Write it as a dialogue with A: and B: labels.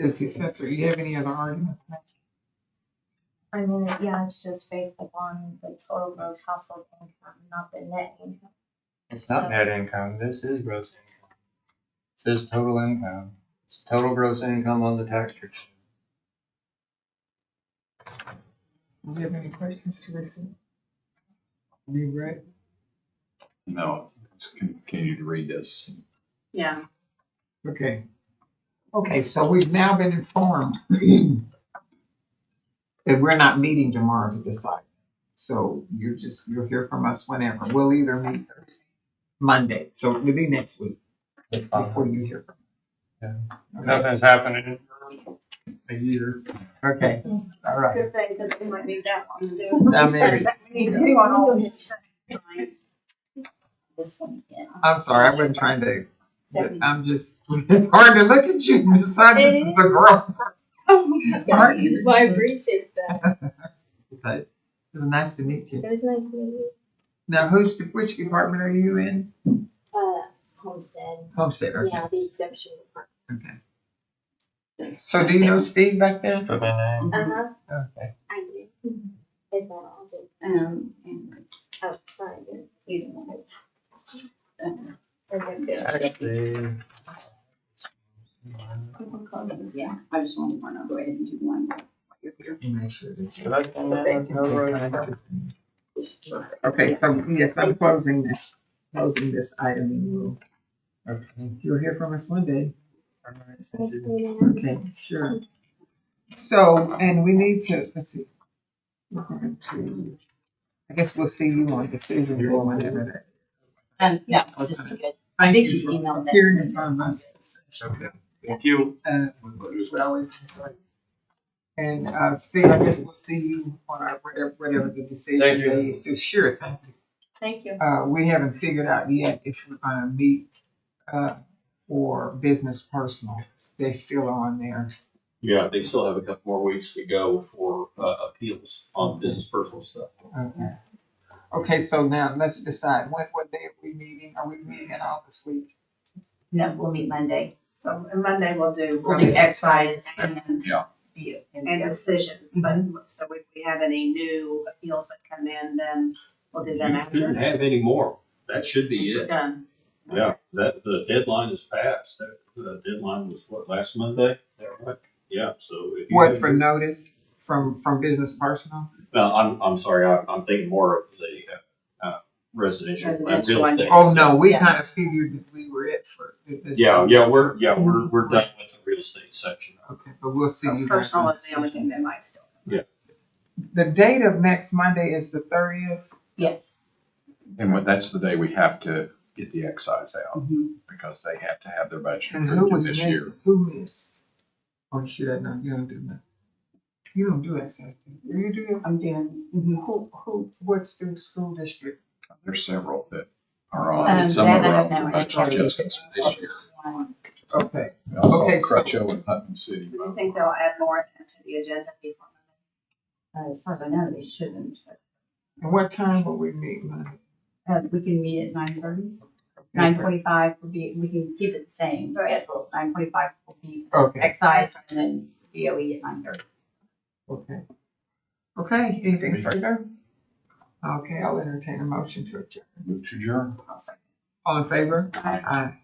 A: as the assessor, you have any other argument?
B: I mean, yeah, it's just based upon the total gross household income, not the net income.
C: It's not net income, this is gross income. It says total income, it's total gross income on the tax return.
A: Do you have any questions, Teresa? Be ready.
D: No, just continue to read this.
E: Yeah.
A: Okay. Okay, so we've now been informed that we're not meeting tomorrow to decide. So you're just, you'll hear from us whenever. We'll either meet Thursday, Monday, so it'll be next week
C: It's fine.
A: before you hear
C: Yeah.
A: from us.
C: Nothing's happening in a year.
A: Okay, all
E: That's a
A: right.
E: good thing, because we might need that one too.
A: I mean-
E: Sorry, that We need to do on all these.
B: This one, yeah.
A: I'm sorry, I've been trying to,
B: Seven.
A: I'm just, it's hard to look at you and decide this is the girl. Aren't you?
B: Well, I appreciate that.
A: But It was nice to meet you.
B: It was nice meeting you.
A: Now, who's, which department are you in?
B: Uh, homestead,
A: Homestead, okay,
B: yeah, the exemption department.
A: okay. So do you know Steve back there?
C: Put my name.
B: Uh-huh,
C: Okay.
B: I do. If not, I'll do,
E: Um, and,
B: oh, sorry, I did. you didn't want it.
E: uh,
B: Okay, good.
C: Actually.
E: couple closes, yeah, I just wanted one, I'll go ahead and do one. while you're here.
A: And make sure that you-
C: That's the name, no road.
A: Okay, so yes, I'm closing this, closing this item and we'll,
C: Okay.
A: you'll hear from us one day.
C: All right.
B: Nice meeting you.
A: Okay, sure. So, and we need to, let's see. We're going to- I guess we'll see you on decision board whenever that.
F: Um, no, just to get,
A: Thank
F: Vicky
A: you for
F: emailed that.
A: appearing in front of us.
C: Okay. Thank you.
A: Uh, we always enjoy. And, uh, Steve, I guess we'll see you on our, whatever, whatever the decision
C: Thank you.
A: day is. So, Sure, thank you.
E: Thank you.
A: uh, we haven't figured out yet if we're gonna meet, uh, for business personal. They're still on there.
D: Yeah, they still have a couple more weeks to go for uh, appeals on business personal stuff.
A: Okay. Okay, so now let's decide, when, what day are we meeting? Are we meeting at all this week?
F: no, we'll meet Monday.
E: So and Monday we'll do,
F: We'll do excise
E: and,
D: Yeah.
F: the-
E: and decisions, but,
F: Mm-hmm.
E: so if we have any new appeals that come in, then we'll do them
D: You shouldn't
E: after.
D: have any more. That should be
E: We're
D: it.
E: done.
D: Yeah, that, the deadline is passed. That, the deadline was what, last Monday? Is that right? Yeah, so. if you-
A: What, for notice from, from business personal?
D: No, I'm, I'm sorry, I'm, I'm thinking more of the, uh, uh, residential, uh,
E: Residential
D: real
E: one.
D: estate.
A: Oh, no, we
F: Yeah.
A: kind of figured that we were it for this.
D: Yeah, yeah, we're, yeah, we're, we're done with the real estate section.
A: Okay, but we'll see
E: So
A: you guys.
E: Personal
A: on
E: is the only thing that might still.
A: The date of next Monday is the thirtieth.
F: Yes.
G: And when, that's the day we have to get the excise out
E: Mhm.
G: because they have to have their budget
A: And who
G: approved in
A: was
G: this year.
A: missed, who missed? Or should I not, you don't do that. You don't do excise, do you? you do it?
F: I'm doing,
A: Who, who, what's the school district?
G: There's several that are
F: Um,
G: on, some of
F: that I
G: them are on
F: don't know.
G: the budget adjustments for this year.
F: um,
A: Okay,
G: We also
A: Okay,
G: have
A: so-
G: Crutcho and Putnam City.
E: Do you think they'll add more to the agenda before?
F: uh, as far as I know, they shouldn't.
A: and what time will we meet Monday?
F: Uh, we can meet at nine thirty, nine forty-five will be, we can keep it the same
E: Right.
F: schedule. Nine forty-five will be
A: Okay,
F: excise and then BOE at nine thirty.
A: okay. Okay, anything further? Okay, I'll entertain a motion to adjourn.
G: Move to adjourn.
E: I'll say.
A: All in favor?
E: Aye.
A: Aye.